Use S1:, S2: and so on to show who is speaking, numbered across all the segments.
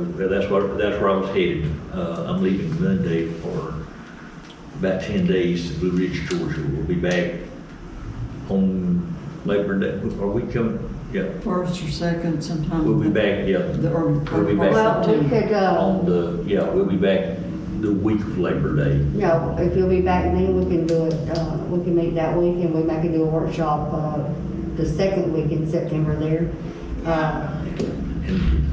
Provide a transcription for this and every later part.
S1: Yeah, that's what, that's where I was headed. Uh, I'm leaving Monday for about ten days to Blue Ridge, Georgia. We'll be back on Labor Day. Are we coming? Yeah,
S2: First or second sometime.
S1: we'll be back, yeah.
S2: The early.
S1: We'll be back.
S3: Well, we could, uh,
S1: On the, yeah, we'll be back the week of Labor Day.
S3: no, if you'll be back then, we can do it, uh, we can meet that week and we might can do a workshop, uh, the second week in September there. Uh,
S1: And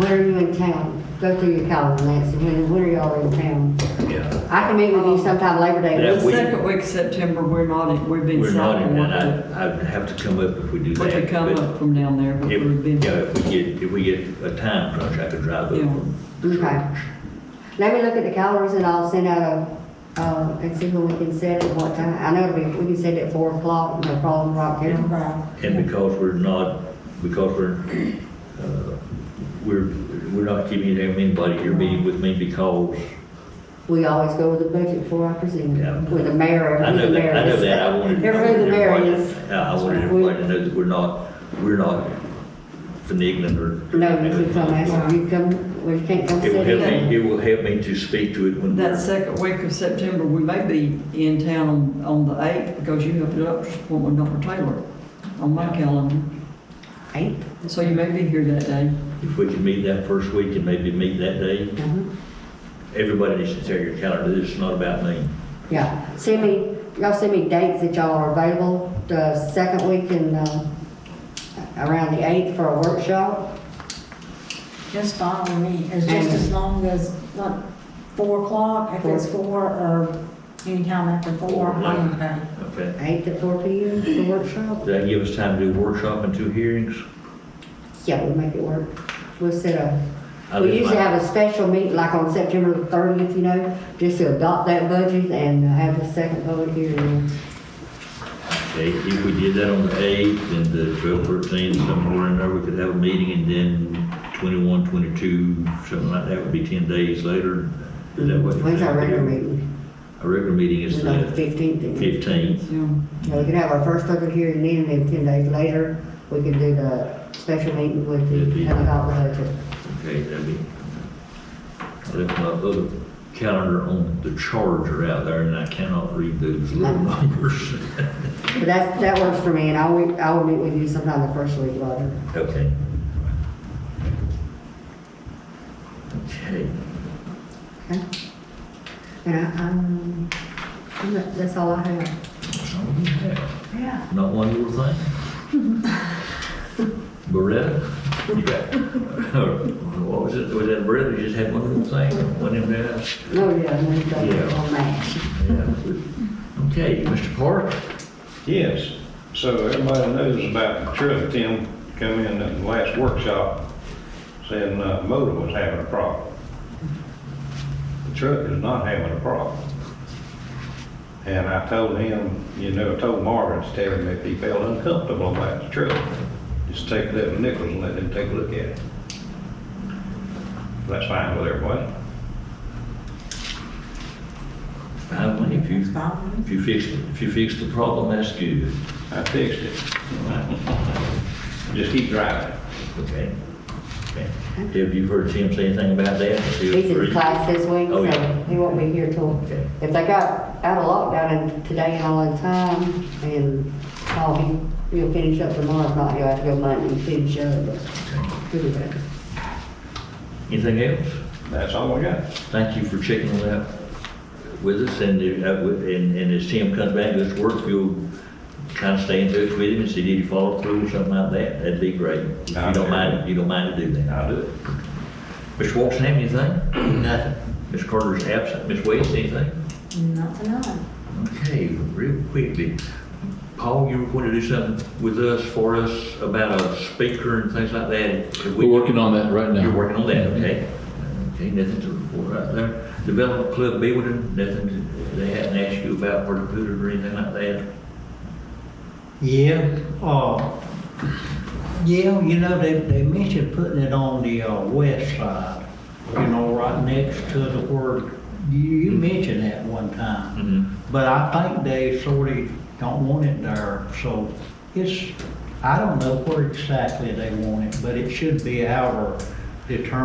S3: where are you in town? Go through your calendar, Nancy, when, when are y'all in town?
S1: Yeah,
S3: I can meet with you sometime Labor
S1: Yeah.
S3: Day.
S2: The
S1: That week.
S2: second week of September, we're not, in- we've been
S1: we're not
S2: stopping
S1: in,
S2: what
S1: and
S2: the,
S1: I, I'd have to come up if we do
S2: what
S1: that.
S2: they come
S1: but
S2: up from down there, but
S1: If,
S2: we've been.
S1: yeah, if we get, if we get a time crunch, I could drive up
S2: Yeah.
S1: from the
S3: Okay.
S1: church.
S3: Let me look at the calendars and I'll send out a, uh, and see when we can set it, what time. I know it'll be, we can set it at four o'clock, no problem, right here.
S1: And because we're not, because we're, uh, we're, we're not keeping anybody here meeting with me because
S3: We always go with the budget before I present
S1: Yeah.
S3: it, with the mayor,
S1: I
S3: who the
S1: know that,
S3: mayor
S1: I know
S3: is.
S1: that, I wanted.
S3: Everybody the mayor
S1: everybody-
S3: is.
S1: Yeah, I wanted everybody to know that we're not, we're not finagling or.
S3: No, you can come, ask, you come, well, you can't come
S1: It will
S3: sit
S1: help
S3: in.
S1: me, it will help me to speak to it when
S2: That
S1: we're,
S2: second week of September, we may be in town on the eighth because you have a doctor's appointment with Dr. Taylor on my calendar.
S3: Eight?
S2: So you may be here that day.
S1: if we can meet that first week and maybe meet that day.
S3: Mhm.
S1: Everybody needs to take your calendar, this is not about me.
S3: Yeah, send me, y'all send me dates that y'all are available, the second week in, uh, around the eighth for a workshop.
S4: Just fine with me, it's just as long as, like, four o'clock, if it's four, or anytime after four, I'm okay.
S1: Okay.
S3: Eight to four P M for workshop?
S1: Does that give us time to do a workshop and two hearings?
S3: Yeah, we'll make it work. We'll set a,
S1: I
S3: we
S1: live
S3: usually
S1: my-
S3: have a special meeting, like on September thirtieth, you know, just to adopt that budget and have the second public hearing.
S1: Okay, if we did that on the eighth and the twelve, thirteen, somewhere in there, we could have a meeting and then twenty-one, twenty-two, something like that would be ten days later. Is that what? you're
S3: When's our
S1: saying?
S3: regular meeting?
S1: Our regular meeting is
S3: It's on the
S1: the
S3: fifteenth.
S1: fifteenth.
S2: Yeah.
S3: Yeah, we can have our first public hearing then, and then ten days later, we can do the special meeting with the, have about the budget.
S1: Okay, that'd be. I left my other calendar on the charger out there and I cannot read those little numbers.
S3: But that, that works for me, and I will, I will meet with you sometime the first week, Roger.
S1: Okay. Okay,
S3: Okay? And I, um, I'm not- that's all I have.
S1: so we have.
S3: Yeah.
S1: Not one little thing. Beretta? You got- What was it? Was that Beretta? You just had one little thing, one in there?
S3: Oh, yeah, and then
S1: Yeah.
S3: go on that.
S1: Yeah. Okay, Mr. Park?
S5: Yes, so everybody knows about the truck Tim come in at the last workshop saying uh, motor was having a problem. The truck is not having a problem. And I told him, you know, I told Marvin to tell him if he felt uncomfortable about the truck, just take it up to Nichols and let him take a look at it. That's fine with everybody.
S1: Finally, if you, if you fix, if you fix the problem, that's good.
S5: I fixed it. Just keep driving.
S1: Okay. Okay. Have you heard Tim say anything about that? Feel
S3: He's
S1: free.
S3: in class this week,
S1: Oh, yeah.
S3: so he won't be here till,
S1: Okay.
S3: if they got out of lockdown and today and all the time, and call him, he'll finish up tomorrow, if not, he'll have to go Monday and finish up, but he'll be back.
S1: Anything else?
S5: That's all we got.
S1: Thank you for checking on that with us, and, uh, with- and and as Tim comes back to his work, you'll kind of stay in touch with him and see did he follow through or something like that, that'd be great. If you don't mind, if you don't mind to do that.
S5: I'll do it.
S1: Ms. Watson, have anything? Nothing. Ms. Carter's absent, Ms. West, anything?
S4: Not tonight.
S1: Okay, real quickly, Paul, you were going to do something with us, for us, about a speaker and things like that? Could we-
S6: We're working on that right now.
S1: You're working on that, okay? Okay, Mm-hmm. nothing to report out there. Development Club building, nothing, to- they hadn't asked you about where to put it or anything like that?
S7: Yeah, uh, yeah, you know, they, they mentioned putting it on the, uh, west side, you know, right next to the word, you, you mentioned that one
S1: Mhm.
S7: time. But I think they sort of don't want it there, so it's, I don't know where exactly they want it, but it should be our determined